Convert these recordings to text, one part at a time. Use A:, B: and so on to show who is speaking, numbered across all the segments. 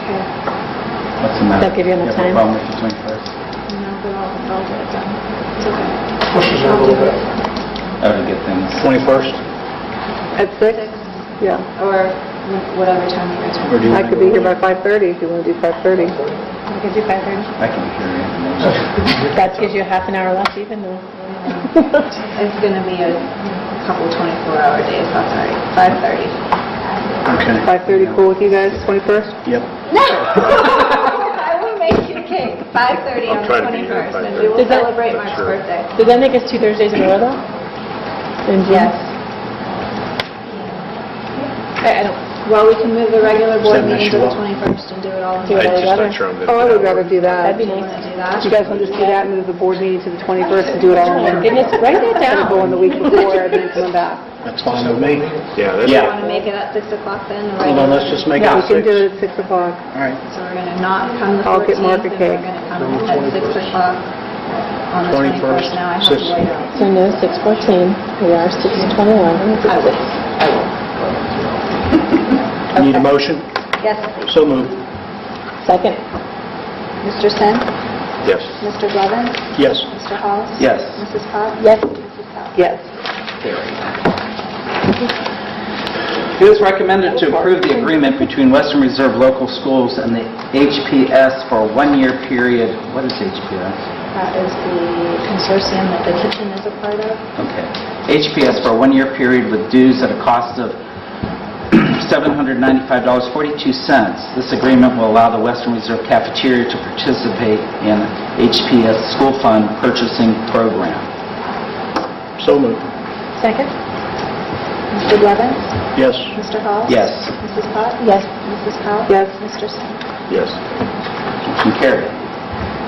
A: here.
B: What's the matter?
A: They'll give you enough
B: have a
A: time.
B: problem with the 21st?
A: No, we're all, we're all good, done. It's okay.
C: Pushes it a little bit.
B: I would get things,
D: 21st?
A: At six? Yeah.
E: or whatever time you guys
B: Or
E: want.
B: do you
A: I
B: wanna
A: could
B: go
A: be here
B: over?
A: by 5:30 if you want to do 5:30.
E: We could do five thirty.
B: I can hear you.
A: That gives you half an hour left even though.
E: It's gonna be a couple twenty-four hour days, that's all right, five thirty.
D: Okay.
A: 5:30 cool with you guys, 21st?
D: Yep.
E: No! I will make you a cake, five thirty on
F: I'll
E: the
F: try to be here
E: twenty-first,
F: at
E: and we
A: 5:30.
E: will
A: Is that-
E: celebrate Mark's
F: Sure.
E: birthday.
A: Does that make us two Thursdays in a row though? In June?
E: Yes.
A: I I don't,
E: Well, we can move the regular board
D: Does that mess
E: meeting to
D: you
E: the
D: up?
E: twenty-first and do it all in
A: Do it
E: one.
A: all
F: just
A: together.
F: not sure I'm gonna
A: Oh, I
F: do
A: would
F: that.
A: rather do that.
E: That'd be nice. Do that?
A: You guys want to just do that and move the board meeting to the 21st and do it all in Oh, my one?
E: goodness,
A: write that down. Going the week before and then coming back.
D: That's fine with me.
F: Yeah, that's...
D: Yeah.
E: Want to make it at six o'clock then? the
D: Hold on,
E: regular-
D: let's just make it
A: Yeah,
D: at
A: we can
D: six.
A: do it at 6 o'clock.
D: All right,
E: So we're gonna not come the
A: I'll
E: fourteenth,
A: get
E: and
A: Mark
E: we're
A: a cake.
E: gonna come at six o'clock on the
D: 21st,
E: twenty-first. Now I have to
D: six.
E: wait on.
A: So no, 6:14, we are 6:21.
E: I will.
D: need a motion?
E: Yes,
D: So moved.
A: Second.
E: Mr. Sen,
F: Yes.
E: Mr. Blevins,
D: Yes.
E: Mr. Halls?
B: Yes.
E: Mrs. Potts?
A: Yes.
E: Mrs. Powell?
A: Yes.
B: It is recommended to approve the agreement between Western Reserve Local Schools and the HPS for a one-year period. What is HPS?
E: That is the consortium that the kitchen is a part of.
B: Okay. HPS for a one-year period with dues at a cost of $795.42. This agreement will allow the Western Reserve Cafeteria to participate in HPS School Fund Purchasing Program.
D: So moved.
A: Second?
E: Mr. Blevins?
D: Yes.
E: Mr. Halls?
B: Yes.
E: Mrs. Potts?
A: Yes.
E: Mrs. Powell?
A: Yes.
E: Mr. Sen?
F: Yes.
B: and carried.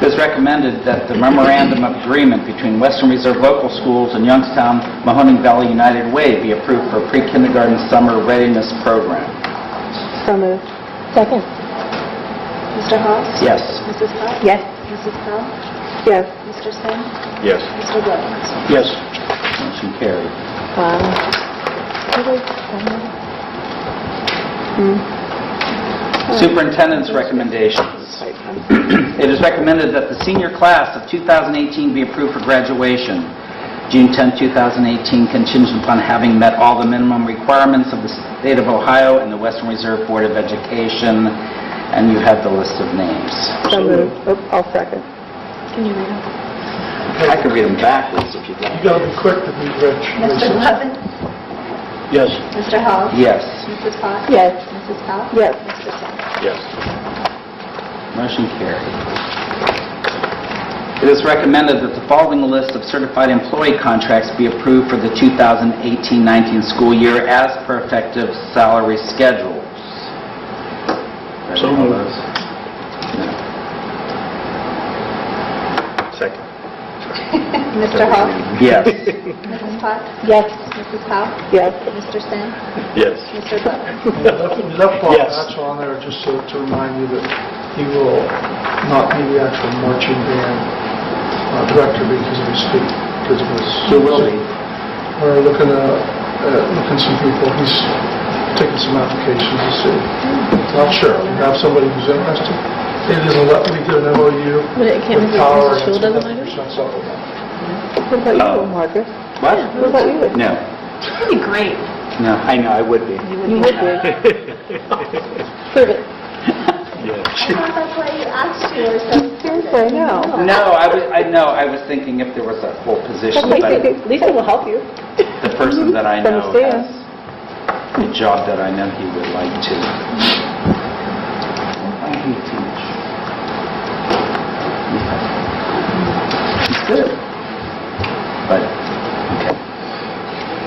B: It is recommended that the memorandum of agreement between Western Reserve Local Schools and Youngstown Mahoning Valley United Way be approved for pre-kindergarten summer readiness program.
A: So moved. Second.
E: Mr. Halls?
B: Yes.
E: Mrs. Potts?
A: Yes.
E: Mrs. Powell?
A: Yes.
E: Mr. Sen?
F: Yes.
E: Mr. Blevins?
D: Yes.
B: Motion carried.
A: Wow.
B: Superintendent's recommendations. It is recommended that the senior class of 2018 be approved for graduation, June 10, 2018, contingent upon having met all the minimum requirements of the state of Ohio and the Western Reserve Board of Education, and you have the list of names.
A: So moved. Oh, I'll second.
E: Can you read them?
B: I could read them backwards if you'd
C: You
B: like.
C: gotta be quick to be rich.
E: Mr. Blevins?
D: Yes.
E: Mr. Halls?
B: Yes.
E: Mrs. Potts?
A: Yes.
E: Mrs. Powell?
A: Yes.
E: Mr. Sen?
F: Yes.
B: Motion carried. It is recommended that the following list of certified employee contracts be approved for the 2018-19 school year as per effective salary schedules. Ready
D: So
B: all
D: moved.
B: those? No.
F: Second.
E: Mr. Hall?
B: Yes.
E: Mrs. Potts?
A: Yes.
E: Mrs. Powell?
A: Yes.
E: Mr. Sen?
F: Yes.
E: Mr. Blevins?
C: Left off,
D: Yes.
C: that's on there, just so to remind you that he will not be the actual marching band uh, director because of his feet, because of his...
B: Who will be?
C: We're looking at, uh, looking some people, he's taking some applications to see. Not sure, we have somebody who's interested. It is a, le- we did an MOU
A: But it can't
C: with
A: be
C: Power.
A: Mrs. Schull doesn't like it?
C: it?
A: What about you, Marcus?
B: Oh. What?
A: What about you?
B: No.
E: That'd be great.
B: No, I know, I would be.
A: You would be. Prove it.
F: Yes.
E: I thought that's why you asked you or something.
A: Seriously, no.
B: No, I was, I know, I was thinking if there was a whole position, but
A: Lisa will help you.
B: the person that I know
A: Understand.
B: has the job that I know he would like to. I hate too much. He's good. But, okay.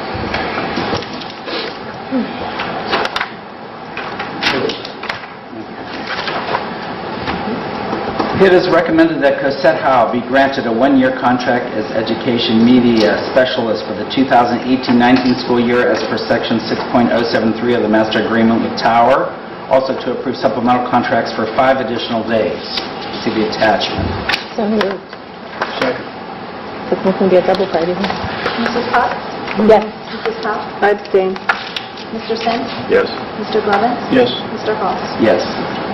B: It is recommended that Cosette Howe be granted a one-year contract as education media specialist for the 2018-19 school year as per section 6.073 of the master agreement with Tower, also to approve supplemental contracts for five additional days. See the attachment.
A: So moved.
D: Second.
A: It's not going to be a double party. huh?
E: Mrs. Potts?
A: Yes.
E: Mrs. Powell?
A: I'd abstain.
E: Mr. Sen?
F: Yes.
E: Mr. Blevins?
D: Yes.
E: Mr. Halls?
B: Yes.